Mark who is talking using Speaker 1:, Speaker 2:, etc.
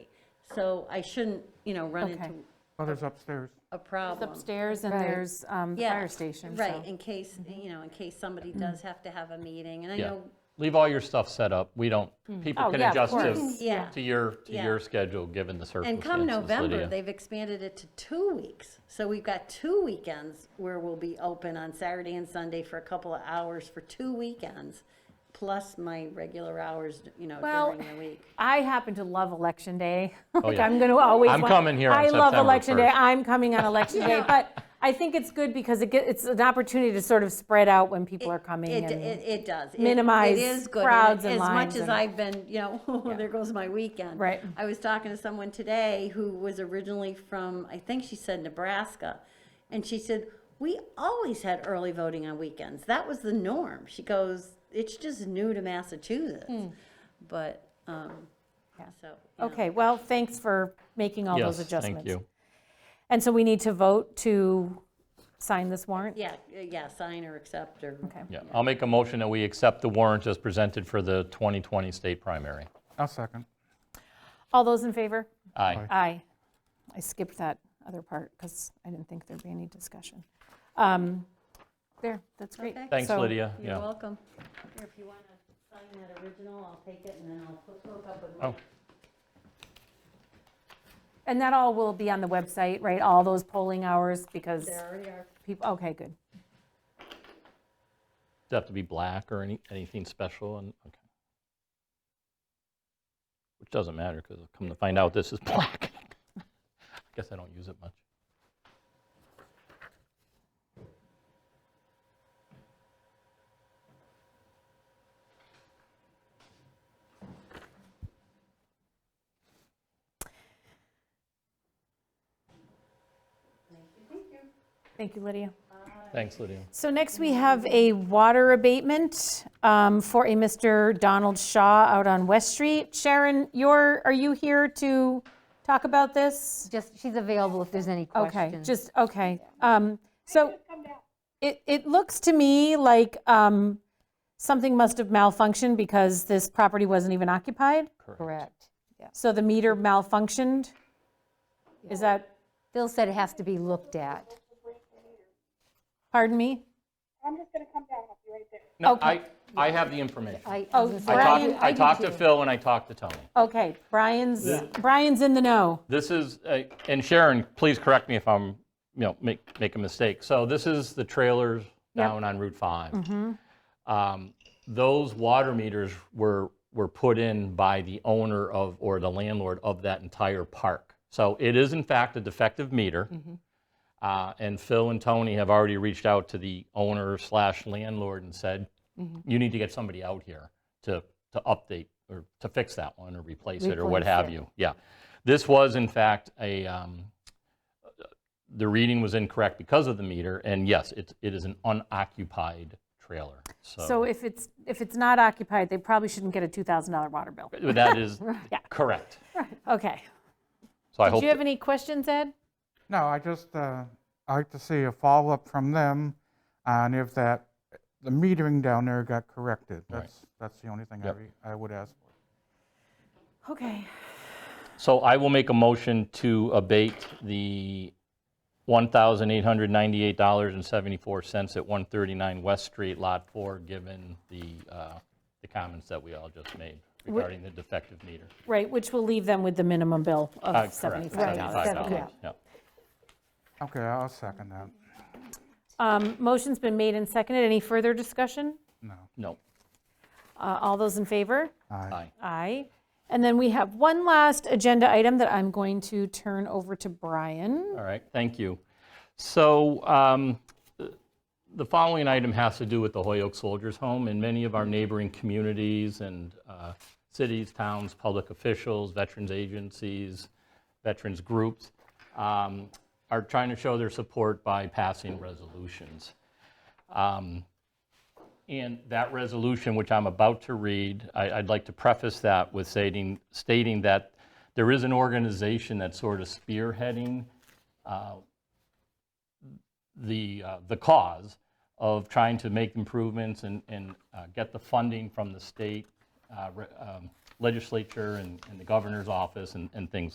Speaker 1: So I shouldn't, you know, run
Speaker 2: Okay.
Speaker 1: into
Speaker 3: Others upstairs.
Speaker 1: a problem.
Speaker 2: upstairs and
Speaker 4: Right.
Speaker 2: there's um, the
Speaker 1: Yeah,
Speaker 2: fire station, so. Mm-hmm.
Speaker 1: Right, in case, you know, in case somebody does have to have a meeting, and I
Speaker 5: Yeah,
Speaker 1: know,
Speaker 5: leave all your stuff set up. We don't, people
Speaker 2: Oh,
Speaker 5: can
Speaker 2: yeah, of
Speaker 5: adjust
Speaker 2: course.
Speaker 5: to,
Speaker 1: yeah.
Speaker 5: to your, to
Speaker 1: Yeah.
Speaker 5: your schedule, given the
Speaker 1: And
Speaker 5: circumstances,
Speaker 1: come November,
Speaker 5: Lydia.
Speaker 1: they've expanded it to two weeks. So we've got two weekends where we'll be open on Saturday and Sunday for a couple of hours for two weekends, plus my regular hours, you know,
Speaker 2: Well,
Speaker 1: during the week.
Speaker 4: I happen to love Election Day. Like,
Speaker 5: Oh, yeah.
Speaker 4: I'm going to always.
Speaker 5: I'm
Speaker 4: want-
Speaker 5: coming here on
Speaker 4: I love
Speaker 5: September
Speaker 4: Election Day.
Speaker 5: 1st.
Speaker 4: I'm coming on Election Day, but I think it's good because it get, it's an opportunity to sort of spread out when people are coming.
Speaker 1: It,
Speaker 4: and-
Speaker 1: it, it does. It-
Speaker 4: minimize
Speaker 1: it is good. And
Speaker 4: crowds and
Speaker 1: As
Speaker 4: lines
Speaker 1: much as
Speaker 4: and-
Speaker 1: I've been, you know, oh, there goes my weekend.
Speaker 4: Right.
Speaker 1: I was talking to someone today who was originally from, I think she said Nebraska. And she said, we always had early voting on weekends. That was the norm. She goes, it's just new to Massachusetts.
Speaker 4: Hmm.
Speaker 1: But, um, so. you know.
Speaker 4: okay, well, thanks for making all those adjustments.
Speaker 5: Yes, thank you.
Speaker 4: And so we need to vote to sign this warrant?
Speaker 1: Yeah, yeah, sign or accept or.
Speaker 4: Okay.
Speaker 5: Yeah, I'll make a motion that we accept the warrant as presented for the 2020 state primary.
Speaker 3: I'll second.
Speaker 4: All those in favor?
Speaker 5: Aye.
Speaker 4: Aye. I skipped that other part because I didn't think there'd be any discussion. Um, There, that's great.
Speaker 1: Okay.
Speaker 5: Thanks,
Speaker 4: So-
Speaker 5: Lydia.
Speaker 1: You're
Speaker 5: Yeah.
Speaker 1: welcome. Here, if you want to sign that original, I'll take it and then I'll put- hook up with.
Speaker 5: Oh,
Speaker 4: And that all will be on the website, right? All those polling hours because
Speaker 1: There already are.
Speaker 4: people, okay, good.
Speaker 5: does it have to be black or any, anything special? And, okay. Which doesn't matter, because come to find out, this is black. I guess I don't use it much.
Speaker 4: Thank you, Lydia.
Speaker 5: Thanks, Lydia.
Speaker 4: So next, we have a water abatement um, for a Mr. Donald Shaw out on West Street. Sharon, you're, are you here to talk about this?
Speaker 6: Just, she's available if there's any questions.
Speaker 4: Okay, just, okay. Um, So it, it looks to me like um, something must have malfunctioned because this property wasn't even occupied.
Speaker 6: Correct. Yeah.
Speaker 4: So the meter malfunctioned? Is that,
Speaker 6: Phil said it has to be looked at.
Speaker 4: pardon me?
Speaker 7: I'm just gonna come down with you right there.
Speaker 5: No, I, I have the information. I
Speaker 6: I, I
Speaker 4: Oh,
Speaker 6: was gonna say-
Speaker 4: Brian,
Speaker 5: talked, I
Speaker 6: do
Speaker 5: talked to
Speaker 6: too.
Speaker 5: Phil and I talked to Tony.
Speaker 4: Okay, Brian's, Brian's in the know.
Speaker 5: This is, uh, and Sharon, please correct me if I'm, you know, make, make a mistake. So this is the trailers down on Route 5. Um, Those water meters were, were put in by the owner of, or the landlord of that entire park. So it is in fact a defective meter. Uh, And Phil and Tony have already reached out to the owner slash landlord and said, you need to get somebody out here to, to update or to fix that one or replace it or what
Speaker 6: Replace
Speaker 5: have
Speaker 6: it.
Speaker 5: you. Yeah. This was in fact a, um, the reading was incorrect because of the meter. And yes, it, it is an unoccupied trailer.
Speaker 4: So if it's, if it's not occupied, they probably shouldn't get a $2,000 water bill.
Speaker 5: That is correct.
Speaker 4: Okay.
Speaker 5: So I
Speaker 4: Do
Speaker 5: hope,
Speaker 4: you have any questions, Ed?
Speaker 3: No, I just, uh, I'd like to see a follow-up from them on if that, the metering down there got corrected. That's, that's the only thing I
Speaker 5: Yep.
Speaker 3: re- I would ask for.
Speaker 4: Okay.
Speaker 5: so I will make a motion to abate the $1,898.74 at 139 West Street, Lot 4, given the, uh, the comments that we all just made regarding the defective meter.
Speaker 4: Right, which will leave them with the minimum bill of
Speaker 5: Uh, correct,
Speaker 4: $75.
Speaker 5: $75, yeah.
Speaker 3: Okay, I'll second that.
Speaker 4: Um, Motion's been made and seconded. Any further discussion?
Speaker 5: No,
Speaker 4: Uh, All those in favor?
Speaker 3: Aye.
Speaker 5: aye.
Speaker 4: Aye. And then we have one last agenda item that I'm going to turn over to Brian.
Speaker 5: All right, thank you. So um, the following item has to do with the Hoyoke Soldiers Home. In many of our neighboring communities and uh, cities, towns, public officials, veterans agencies, veterans groups um, are trying to show their support by passing resolutions. Um, And that resolution, which I'm about to read, I- I'd like to preface that with stating, stating that there is an organization that's sort of spearheading uh, the, uh, the cause of trying to make improvements and, and uh, get the funding from the state uh, re- um, legislature and and the governor's office and, and things